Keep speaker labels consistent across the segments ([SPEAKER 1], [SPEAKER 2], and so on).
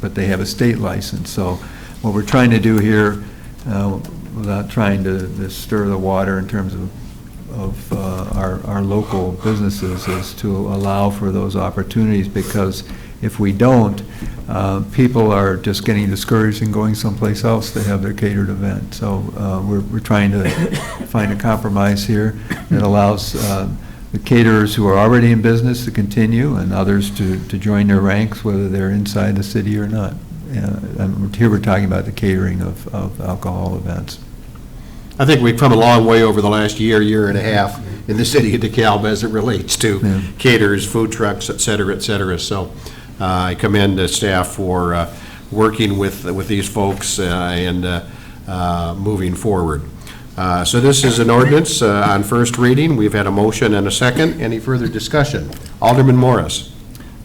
[SPEAKER 1] but they have a state license. So what we're trying to do here, uh, without trying to to stir the water in terms of, of uh, our, our local businesses, is to allow for those opportunities, because if we don't, uh, people are just getting discouraged and going someplace else to have their catered event. So uh, we're, we're trying to find a compromise here that allows uh, the caterers who are already in business to continue and others to, to join their ranks, whether they're inside the city or not. Uh, and Here we're talking about the catering of, of alcohol events.
[SPEAKER 2] I think we've come a long way over the last year, year and a half in the city of DeKalb as it relates
[SPEAKER 1] Yeah.
[SPEAKER 2] to caterers, food trucks, et cetera, et cetera. So uh, I commend the staff for uh, working with, with these folks uh, and uh, uh, moving forward. Uh, So this is an ordinance uh, on first reading. We've had a motion and a second. Any further discussion? Alderman Morris.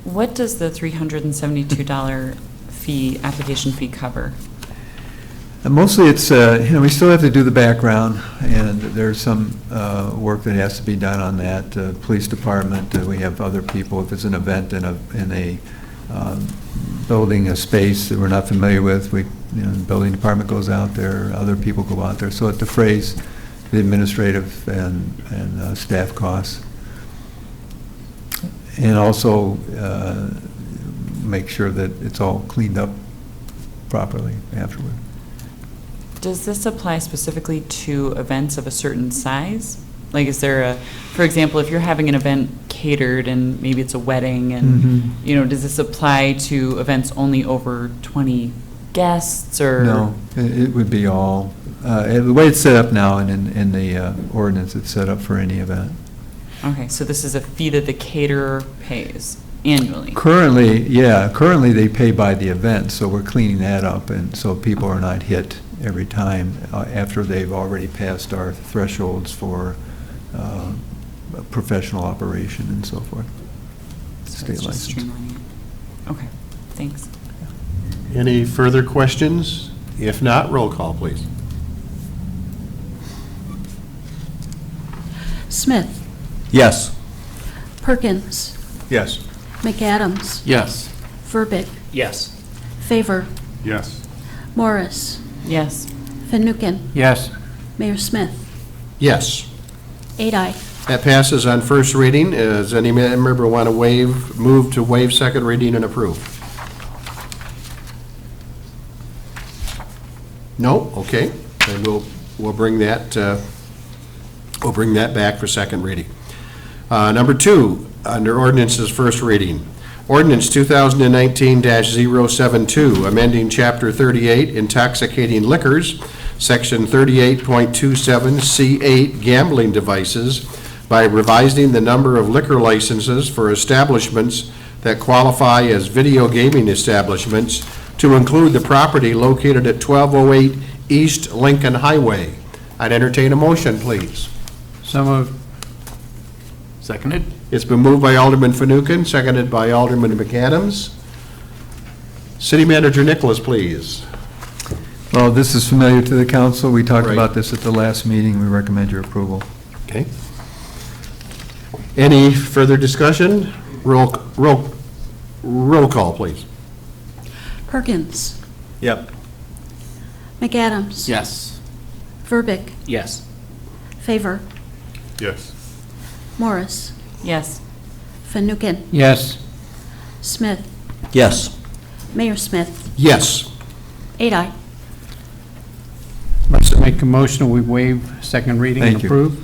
[SPEAKER 3] What does the $372 fee, application fee cover?
[SPEAKER 1] And Mostly it's, uh, you know, we still have to do the background, and there's some uh, work that has to be done on that. Uh, Police Department, uh, we have other people, if it's an event in a, in a um, building, a space that we're not familiar with, we, you know, the building department goes out there, other people go out there. So it defrays the administrative and, and uh, staff costs. And also uh, make sure that it's all cleaned up properly afterward.
[SPEAKER 3] Does this apply specifically to events of a certain size? Like, is there a, for example, if you're having an event catered and maybe it's a wedding
[SPEAKER 1] Mhm.
[SPEAKER 3] and, you know, does this apply to events only over 20 guests or?
[SPEAKER 1] No, it it would be all, uh, eh, the way it's set up now and in, in the uh, ordinance, it's set up for any event.
[SPEAKER 3] Okay, so this is a fee that the caterer pays annually?
[SPEAKER 1] Currently, yeah, currently they pay by the event, so we're cleaning that up, and so people are not hit every time uh, after they've already passed our thresholds for uh, professional operation and so forth.
[SPEAKER 3] So
[SPEAKER 1] State
[SPEAKER 3] it's just
[SPEAKER 1] license.
[SPEAKER 3] streamlining it. Okay, thanks.
[SPEAKER 2] Any further questions? If not, roll call, please.
[SPEAKER 4] Smith,
[SPEAKER 5] Yes.
[SPEAKER 4] Perkins,
[SPEAKER 2] Yes.
[SPEAKER 4] McAdams,
[SPEAKER 5] Yes.
[SPEAKER 4] Verbic,
[SPEAKER 5] Yes.
[SPEAKER 4] Favor,
[SPEAKER 2] Yes.
[SPEAKER 4] Morris,
[SPEAKER 3] Yes,
[SPEAKER 4] Van Nuken,
[SPEAKER 5] Yes.
[SPEAKER 4] Mayor Smith,
[SPEAKER 2] Yes.
[SPEAKER 4] eight I.
[SPEAKER 2] That passes on first reading. Does any member want to waive, move to waive second reading and approve? No? Okay. Then we'll, we'll bring that, uh, we'll bring that back for second reading. Uh, Number two, under ordinances, first reading. Ordinance 2019-072, amending Chapter 38 intoxicating liquors, Section 38.27C8 gambling devices by revising the number of liquor licenses for establishments that qualify as video gaming establishments to include the property located at 1208 East Lincoln Highway. I'd entertain a motion, please.
[SPEAKER 5] So moved. Seconded?
[SPEAKER 2] It's been moved by Alderman Fanouken, seconded by Alderman McAdams. City Manager Nicholas, please.
[SPEAKER 1] Well, this is familiar to the council, we talked
[SPEAKER 2] Right.
[SPEAKER 1] about this at the last meeting, we recommend your approval.
[SPEAKER 2] Okay. Any further discussion? Roll, roll, roll call, please.
[SPEAKER 4] Perkins,
[SPEAKER 5] Yep.
[SPEAKER 4] McAdams.
[SPEAKER 5] Yes.
[SPEAKER 4] Verbic,
[SPEAKER 5] Yes.
[SPEAKER 4] Favor,
[SPEAKER 2] Yes.
[SPEAKER 4] Morris,
[SPEAKER 3] yes,
[SPEAKER 4] Van Nuken,
[SPEAKER 5] Yes.
[SPEAKER 4] Smith,
[SPEAKER 5] Yes.
[SPEAKER 4] Mayor Smith,
[SPEAKER 2] Yes.
[SPEAKER 4] eight I.
[SPEAKER 6] Let's make a motion, we waive second reading and
[SPEAKER 1] Thank you.
[SPEAKER 6] approve.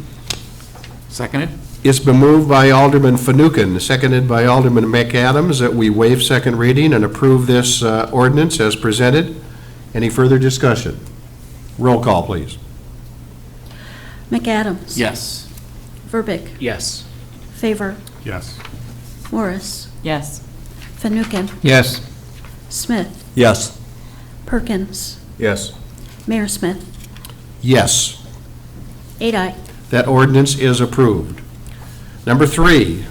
[SPEAKER 5] Seconded?
[SPEAKER 2] It's been moved by Alderman Fanouken, seconded by Alderman McAdams, that we waive second reading and approve this uh, ordinance as presented. Any further discussion? Roll call, please.
[SPEAKER 4] McAdams.
[SPEAKER 5] Yes.
[SPEAKER 4] Verbic,
[SPEAKER 5] Yes.
[SPEAKER 4] Favor,
[SPEAKER 2] Yes.
[SPEAKER 4] Morris,
[SPEAKER 3] yes,
[SPEAKER 4] Van Nuken,
[SPEAKER 6] Yes,
[SPEAKER 4] Smith,
[SPEAKER 5] Yes.
[SPEAKER 4] Perkins,
[SPEAKER 2] Yes.
[SPEAKER 4] Mayor Smith,
[SPEAKER 2] Yes.
[SPEAKER 4] eight I.
[SPEAKER 2] That ordinance is approved. Number three,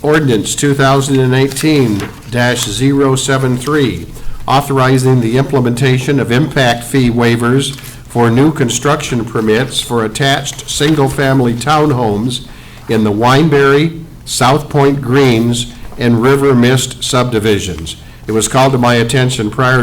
[SPEAKER 2] ordinance 2018-073, authorizing the implementation of impact fee waivers for new construction permits for attached single-family townhomes in the Wineberry, South Point Greens, and River Mist subdivisions. It was called to my attention prior to